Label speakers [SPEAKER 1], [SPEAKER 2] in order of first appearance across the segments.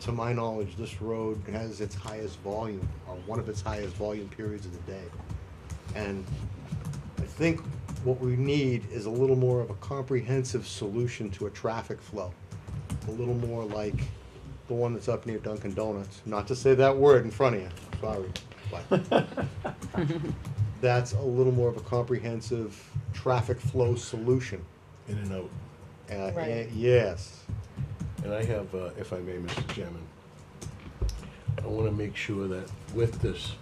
[SPEAKER 1] to my knowledge, this road has its highest volume, or one of its highest volume periods of the day. And I think what we need is a little more of a comprehensive solution to a traffic flow. A little more like the one that's up near Dunkin' Donuts, not to say that word in front of you, sorry, but. That's a little more of a comprehensive traffic flow solution.
[SPEAKER 2] in and out.
[SPEAKER 1] Uh,
[SPEAKER 3] Right.
[SPEAKER 1] Yes,
[SPEAKER 2] And I have, uh, if I may, Mr. Chairman, I wanna make sure that with this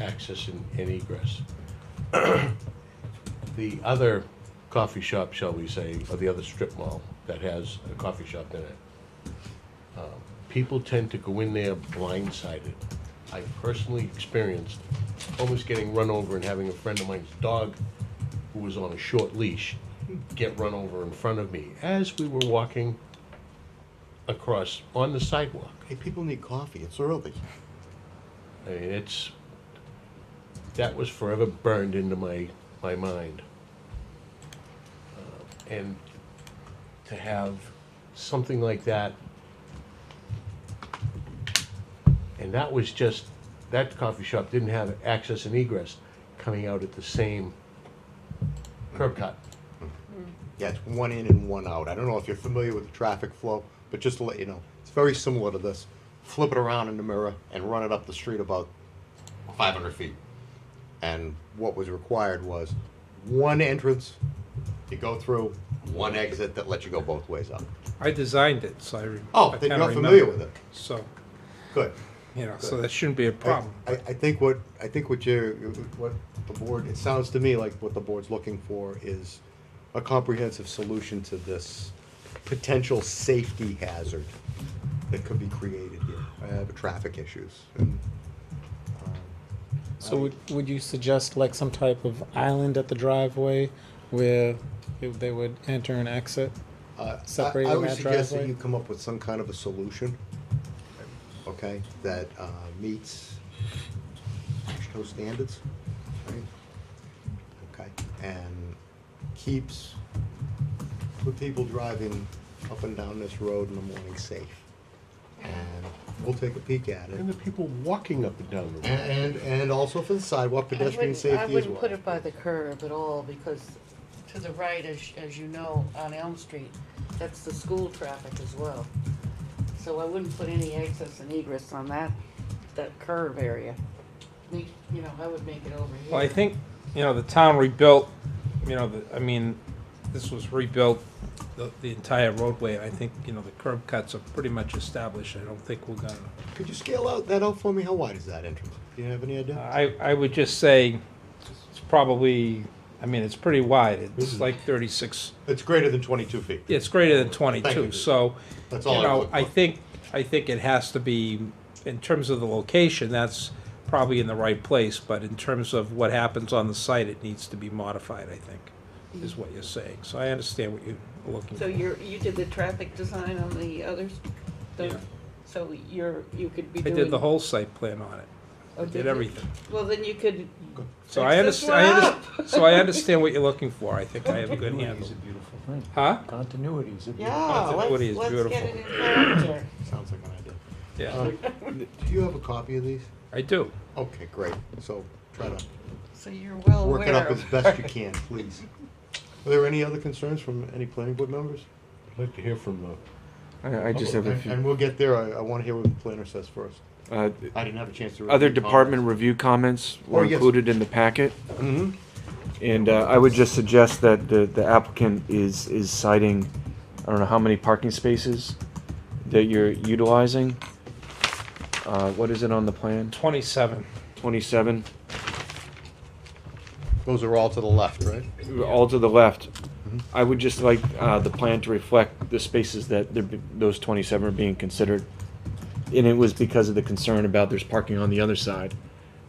[SPEAKER 2] access and and egress, the other coffee shop, shall we say, or the other strip mall that has a coffee shop in it, um, people tend to go in there blindsided. I personally experienced almost getting run over and having a friend of mine's dog who was on a short leash get run over in front of me as we were walking across on the sidewalk.
[SPEAKER 1] hey, people need coffee, it's early.
[SPEAKER 2] I mean, it's that was forever burned into my my mind. Uh, and to have something like that, and that was just that coffee shop didn't have access and egress coming out at the same curb cut.
[SPEAKER 1] Yeah, it's one in and one out. I don't know if you're familiar with the traffic flow, but just to let you know, it's very similar to this. Flip it around in the mirror and run it up the street about 500 feet. And what was required was one entrance you go through, one exit that lets you go both ways up.
[SPEAKER 4] I designed it, so I. re-
[SPEAKER 1] Oh,
[SPEAKER 4] I
[SPEAKER 1] then
[SPEAKER 4] kinda
[SPEAKER 1] you're familiar
[SPEAKER 4] remember.
[SPEAKER 1] with it.
[SPEAKER 4] So,
[SPEAKER 1] Good.
[SPEAKER 4] you know, so that shouldn't be a problem.
[SPEAKER 1] I, I think what, I think what you're, what the board, it sounds to me like what the board's looking for is a comprehensive solution to this potential safety hazard that could be created here, uh, traffic issues. And, um,
[SPEAKER 5] So would, would you suggest like some type of island at the driveway where it- they would enter and exit?
[SPEAKER 1] Uh, I-
[SPEAKER 5] Separating
[SPEAKER 1] I would
[SPEAKER 5] that
[SPEAKER 1] suggest that
[SPEAKER 5] driveway?
[SPEAKER 1] you come up with some kind of a solution, okay, that uh, meets ASHTO standards, right? Okay, and keeps the people driving up and down this road in the morning safe. And we'll take a peek at
[SPEAKER 2] And
[SPEAKER 1] it.
[SPEAKER 2] the people walking up and down the road.
[SPEAKER 1] And, and also for the sidewalk
[SPEAKER 3] I
[SPEAKER 1] pedestrian
[SPEAKER 3] wouldn't-
[SPEAKER 1] safety
[SPEAKER 3] I
[SPEAKER 1] as well.
[SPEAKER 3] wouldn't put it by the curb at all, because to the right, as, as you know, on Elm Street, that's the school traffic as well. So I wouldn't put any access and egress on that, that curb area. Make- You know, I would make it over here.
[SPEAKER 4] Well, I think, you know, the town rebuilt, you know, the, I mean, this was rebuilt, the, the entire roadway. I think, you know, the curb cuts are pretty much established. I don't think we're gonna.
[SPEAKER 1] Could you scale out that out for me? How wide is that entrance? Do you have any idea?
[SPEAKER 4] I, I would just say it's probably, I mean, it's pretty wide. It's like thirty-six,
[SPEAKER 1] It's greater than twenty-two feet.
[SPEAKER 4] it's greater than
[SPEAKER 1] Thank you.
[SPEAKER 4] twenty-two, so.
[SPEAKER 1] That's
[SPEAKER 4] You
[SPEAKER 1] all I
[SPEAKER 4] know,
[SPEAKER 1] look
[SPEAKER 4] I
[SPEAKER 1] for.
[SPEAKER 4] think, I think it has to be, in terms of the location, that's probably in the right place, but in terms of what happens on the site, it needs to be modified, I think, is what you're saying. So I understand what you're looking
[SPEAKER 3] So
[SPEAKER 4] for.
[SPEAKER 3] you're, you did the traffic design on the others? the-
[SPEAKER 4] Yeah.
[SPEAKER 3] So you're, you could be
[SPEAKER 4] I
[SPEAKER 3] doing.
[SPEAKER 4] did the whole site plan on it.
[SPEAKER 3] oh,
[SPEAKER 4] I
[SPEAKER 3] did
[SPEAKER 4] did
[SPEAKER 3] you?
[SPEAKER 4] everything.
[SPEAKER 3] Well, then you could.
[SPEAKER 4] So I
[SPEAKER 3] fix this
[SPEAKER 4] understand, I
[SPEAKER 3] one
[SPEAKER 4] understand,
[SPEAKER 3] up.
[SPEAKER 4] so I understand what you're looking for. I think I have a good handle.
[SPEAKER 6] beautiful thing.
[SPEAKER 4] Huh?
[SPEAKER 6] Continuity is a
[SPEAKER 3] Yeah,
[SPEAKER 4] Continuity is
[SPEAKER 3] let's, let's get it in
[SPEAKER 4] beautiful.
[SPEAKER 3] character.
[SPEAKER 1] Sounds like an idea.
[SPEAKER 4] Yeah,
[SPEAKER 1] Um, Do you have a copy of these?
[SPEAKER 4] I do.
[SPEAKER 1] Okay, great. So try to
[SPEAKER 3] So you're well aware.
[SPEAKER 1] work it up as
[SPEAKER 3] of-
[SPEAKER 1] best you can, please. Are there any other concerns from any planning board members? Oh,
[SPEAKER 2] I'd like to hear from uh, the
[SPEAKER 7] I, I just have a
[SPEAKER 1] And- And
[SPEAKER 7] few.
[SPEAKER 1] we'll get there. I, I want to hear what the planner says first.
[SPEAKER 7] Uh,
[SPEAKER 1] I didn't have a chance to.
[SPEAKER 7] other department review comments
[SPEAKER 1] Oh,
[SPEAKER 7] were
[SPEAKER 1] yes.
[SPEAKER 7] included in the packet,
[SPEAKER 1] hmm
[SPEAKER 7] and uh, I would just suggest that the, the applicant is, is citing, I don't know how many parking spaces that you're utilizing. Uh, what is it on the plan?
[SPEAKER 4] Twenty-seven.
[SPEAKER 7] Twenty-seven,
[SPEAKER 1] Those are all to the left, right?
[SPEAKER 7] all to the left. I would just like, uh, the plan to reflect the spaces that they're, be- those twenty-seven are being considered. And it was because of the concern about there's parking on the other side,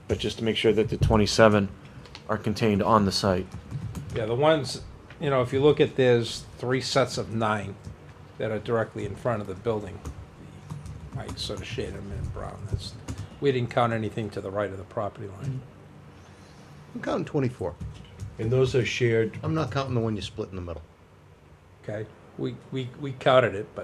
[SPEAKER 7] but just to make sure that the twenty-seven are contained on the site.
[SPEAKER 4] Yeah, the ones, you know, if you look at, there's three sets of nine that are directly in front of the building. I sort of shaded them in brown, that's, we didn't count anything to the right of the property line.
[SPEAKER 1] I'm counting twenty-four.
[SPEAKER 2] and those are shared
[SPEAKER 1] I'm not counting the one you split in the middle.
[SPEAKER 4] Okay, we, we, we counted it, but